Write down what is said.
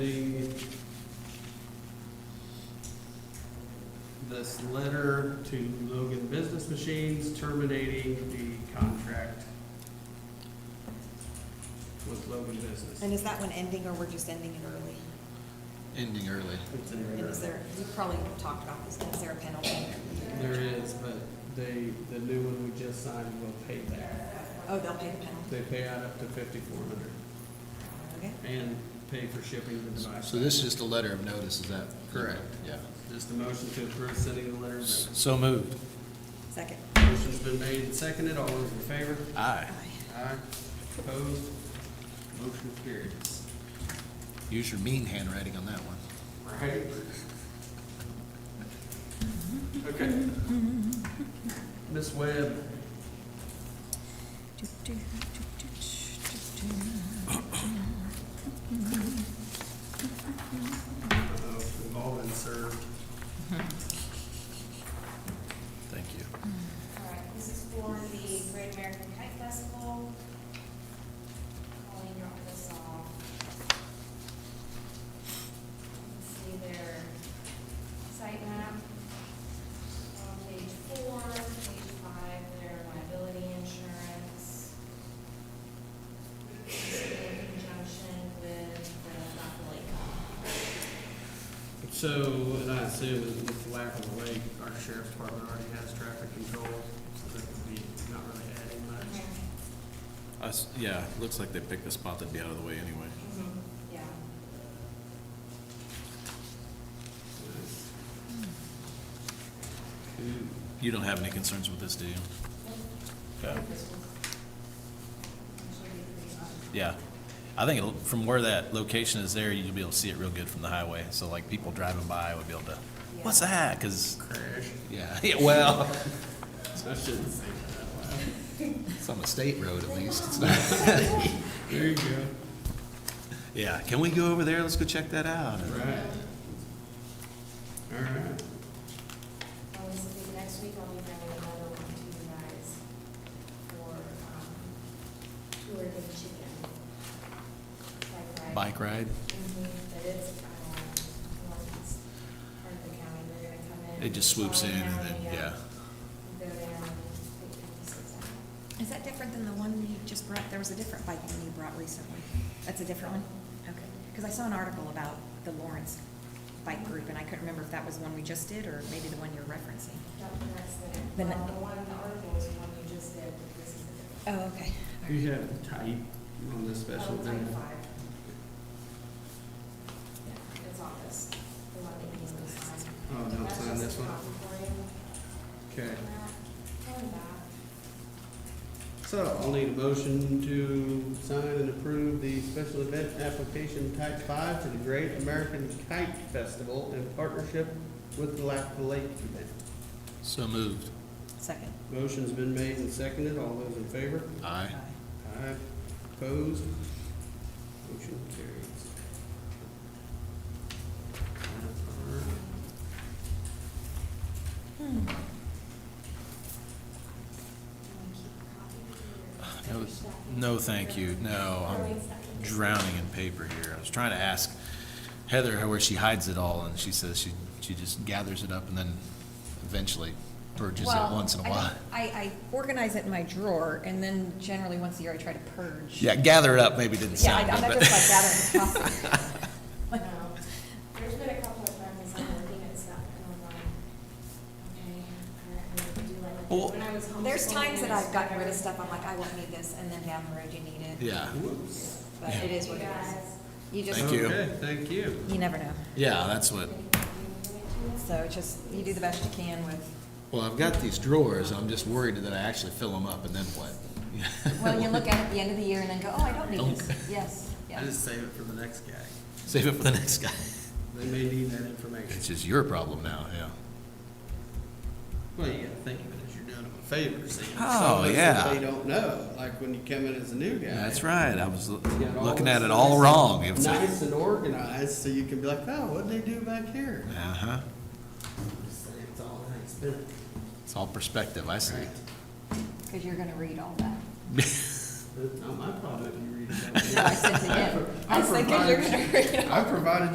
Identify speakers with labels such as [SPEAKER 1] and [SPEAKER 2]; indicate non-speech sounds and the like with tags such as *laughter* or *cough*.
[SPEAKER 1] this letter to Logan Business Machines terminating the contract with Logan
[SPEAKER 2] And
[SPEAKER 1] Business.
[SPEAKER 2] is that one ending, or we're just ending it early?
[SPEAKER 3] ending early.
[SPEAKER 1] It's in
[SPEAKER 2] And
[SPEAKER 1] error.
[SPEAKER 2] is there, we probably talked about this, is there a penalty?
[SPEAKER 1] There is, but they, the new one we just signed will pay that.
[SPEAKER 2] Oh, they'll pay the penalty,
[SPEAKER 1] They pay out up to fifty-four hundred
[SPEAKER 2] okay?
[SPEAKER 1] and pay for shipping the device.
[SPEAKER 3] So this is just a letter of notice, is that?
[SPEAKER 1] Correct.
[SPEAKER 3] Yeah.
[SPEAKER 1] Just a motion to approve sending the letter. of notice.
[SPEAKER 3] So moved.
[SPEAKER 2] Second.
[SPEAKER 1] Motion's been made and seconded. All those in favor?
[SPEAKER 3] Aye.
[SPEAKER 1] Aye. Opposed? Motion carries.
[SPEAKER 3] Use your mean handwriting on that one.
[SPEAKER 1] Right? Okay. Ms. Webb, uh, we've all been served.
[SPEAKER 3] Thank you.
[SPEAKER 4] All right, this is for the Great American Kite Festival. Colleen dropped this off. You can See their site map. On page four, page five, their liability insurance. This is In conjunction with the Buffalo Lake.
[SPEAKER 1] So, and I assume with with the lack of a lake, our sheriff's department already has traffic control, so that would be not really adding much.
[SPEAKER 5] Us, yeah, looks like they picked a spot that'd be out of the way anyway.
[SPEAKER 4] Mhm, Yeah.
[SPEAKER 5] You don't have any concerns with this, do you? Okay. Yeah. I think it'll- from where that location is there, you'll be able to see it real good from the highway. So like people driving by would be able to, what's that? Cause,
[SPEAKER 1] Crash.
[SPEAKER 5] yeah, *laughs* yeah, well,
[SPEAKER 1] I shouldn't say that out loud.
[SPEAKER 3] It's on the state road at least. It's not-
[SPEAKER 1] There you go.
[SPEAKER 5] *laughs* yeah. Can we go over there? Let's go check that out.
[SPEAKER 1] Right. All right.
[SPEAKER 4] Well, this will be next week, I'll be bringing another one to you guys for, um, tour of the chicken.
[SPEAKER 3] Bike ride?
[SPEAKER 4] Mhm, But it's, um, once it's part of the county, they're gonna come in.
[SPEAKER 5] It just swoops in and then,
[SPEAKER 4] County,
[SPEAKER 5] yeah.
[SPEAKER 4] Go there uh, and pick the pieces up.
[SPEAKER 2] Is that different than the one you just brought? There was a different bike one you brought recently. That's a different one? Okay. Because I saw an article about the Lawrence bike group, and I couldn't remember if that was the one we just did, or maybe the one you're referencing.
[SPEAKER 4] Don't press the,
[SPEAKER 2] The ne-
[SPEAKER 4] well, the one, the article is the one you just did, but this is the different.
[SPEAKER 2] Oh, okay.
[SPEAKER 1] You have type on this special
[SPEAKER 4] Oh, type
[SPEAKER 1] thing.
[SPEAKER 4] five. Yeah, It's on this, the one that you need to sign.
[SPEAKER 1] Oh, don't
[SPEAKER 4] That's
[SPEAKER 1] sign
[SPEAKER 4] just
[SPEAKER 1] this
[SPEAKER 4] a
[SPEAKER 1] one?
[SPEAKER 4] copy for you.
[SPEAKER 1] Okay,
[SPEAKER 4] And that.
[SPEAKER 1] so I'll need a motion to sign and approve the special event application type five to the Great American Kite Festival in partnership with the Lack Lake event.
[SPEAKER 3] So moved.
[SPEAKER 2] Second.
[SPEAKER 1] Motion's been made and seconded. All those in favor?
[SPEAKER 3] Aye.
[SPEAKER 1] Aye. Opposed? Motion carries. All right.
[SPEAKER 5] No, no, thank you. No, I'm drowning in paper here. I was trying to ask Heather how- where she hides it all, and she says she, she just gathers it up and then eventually purges it
[SPEAKER 2] Well,
[SPEAKER 5] once in a
[SPEAKER 2] I
[SPEAKER 5] while.
[SPEAKER 2] don't- I, I organize it in my drawer, and then generally, once a year, I try to purge.
[SPEAKER 5] *laughs* Yeah, gather it up maybe didn't
[SPEAKER 2] Yeah, I-
[SPEAKER 5] sound
[SPEAKER 2] I'm
[SPEAKER 5] good,
[SPEAKER 2] not
[SPEAKER 5] but.
[SPEAKER 2] just like
[SPEAKER 5] *laughs*
[SPEAKER 2] gathering the plastic.
[SPEAKER 4] No, there's been a couple of times I'm looking at stuff and I'm like, okay, all right, I really do like
[SPEAKER 5] Well-
[SPEAKER 4] it. When I was homeschooling,
[SPEAKER 2] There's times that I've gotten rid of
[SPEAKER 4] it's-
[SPEAKER 2] stuff, I'm like, I won't need this, and then down the road, you need it.
[SPEAKER 5] Yeah,
[SPEAKER 1] Whoops.
[SPEAKER 2] But it is what it
[SPEAKER 4] You
[SPEAKER 2] is.
[SPEAKER 4] guys,
[SPEAKER 2] You just,
[SPEAKER 5] Thank you.
[SPEAKER 1] Okay, thank you.
[SPEAKER 2] you never know.
[SPEAKER 5] yeah, that's what,
[SPEAKER 2] So it's just, you do the best you can with,
[SPEAKER 3] Well, I've got these drawers. I'm just worried that I actually fill them up and then
[SPEAKER 5] *laughs*
[SPEAKER 3] what?
[SPEAKER 2] well, you look at it at the end of the year and then go, oh, I don't need this. Yes,
[SPEAKER 1] I
[SPEAKER 2] yes.
[SPEAKER 1] just save it for the next guy.
[SPEAKER 3] Save it for the next guy.
[SPEAKER 1] They may need that information.
[SPEAKER 3] It's just your problem now, yeah.
[SPEAKER 1] Well, you gotta think of it as you're doing them a favor, see?
[SPEAKER 5] Oh,
[SPEAKER 1] Some of us,
[SPEAKER 5] yeah.
[SPEAKER 1] They don't know, like when you come in as a new guy.
[SPEAKER 5] that's right. I was
[SPEAKER 1] you got all
[SPEAKER 5] looking at
[SPEAKER 1] this
[SPEAKER 5] it all
[SPEAKER 1] nice-
[SPEAKER 5] wrong. It was-
[SPEAKER 1] Nice and organized, so you can be like, oh, what'd they do back here?
[SPEAKER 5] Uh-huh.
[SPEAKER 1] Just say It's all nice, but.
[SPEAKER 3] It's all perspective, I see.
[SPEAKER 2] Because you're gonna read all that. *laughs*
[SPEAKER 1] Not my problem if you read it.
[SPEAKER 5] *laughs*
[SPEAKER 2] I said to him, I said, 'Cause you're gonna read all
[SPEAKER 1] I provided